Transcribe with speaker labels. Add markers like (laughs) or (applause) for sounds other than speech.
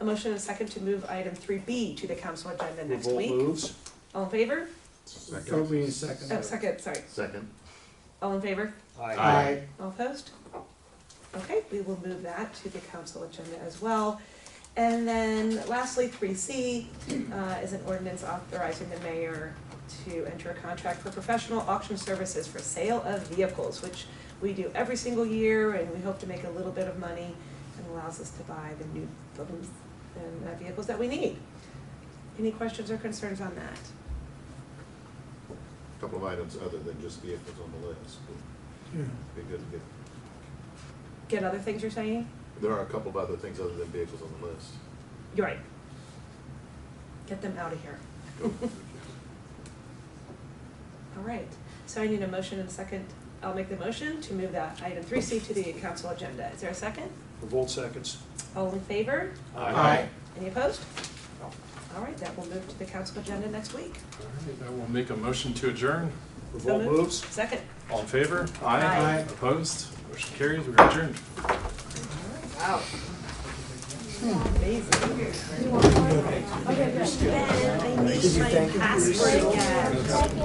Speaker 1: A motion and a second to move item three B to the council agenda next
Speaker 2: Revolt
Speaker 1: week.
Speaker 2: moves.
Speaker 1: All in favor?
Speaker 3: So we second.
Speaker 1: Oh, second, sorry.
Speaker 4: Second.
Speaker 1: All in favor?
Speaker 2: Aye.
Speaker 3: Aye.
Speaker 1: All opposed? Okay, we will move that to the council agenda as well. And then lastly, three C uh, is an ordinance authorizing the mayor to enter a contract for professional auction services for sale of vehicles, which we do every single year, and we hope to make a little bit of money and allows us to buy the new buildings and uh, vehicles that we need. Any questions or concerns on that?
Speaker 4: Couple of items other than just vehicles on the list.
Speaker 3: Yeah.
Speaker 4: It'd Be good to get,
Speaker 1: Get other things you're saying?
Speaker 4: there are a couple of other things other than vehicles on the list.
Speaker 1: You're right. Get them out of here. (laughs) All right, so I need a motion and a second. I'll make the motion to move that item three C to the council agenda. Is there a second?
Speaker 2: Revolt seconds.
Speaker 1: All in favor?
Speaker 3: Aye.
Speaker 1: Any opposed? All right, that will move to the council agenda next week.
Speaker 5: All right, I will make a motion to adjourn.
Speaker 2: Revolt
Speaker 1: moved.
Speaker 2: moves.
Speaker 1: Second.
Speaker 5: All in favor?
Speaker 1: Aye.
Speaker 5: Opposed? Motion carries. We're adjourned.
Speaker 1: Wow. Amazing. Ben, I need my password again.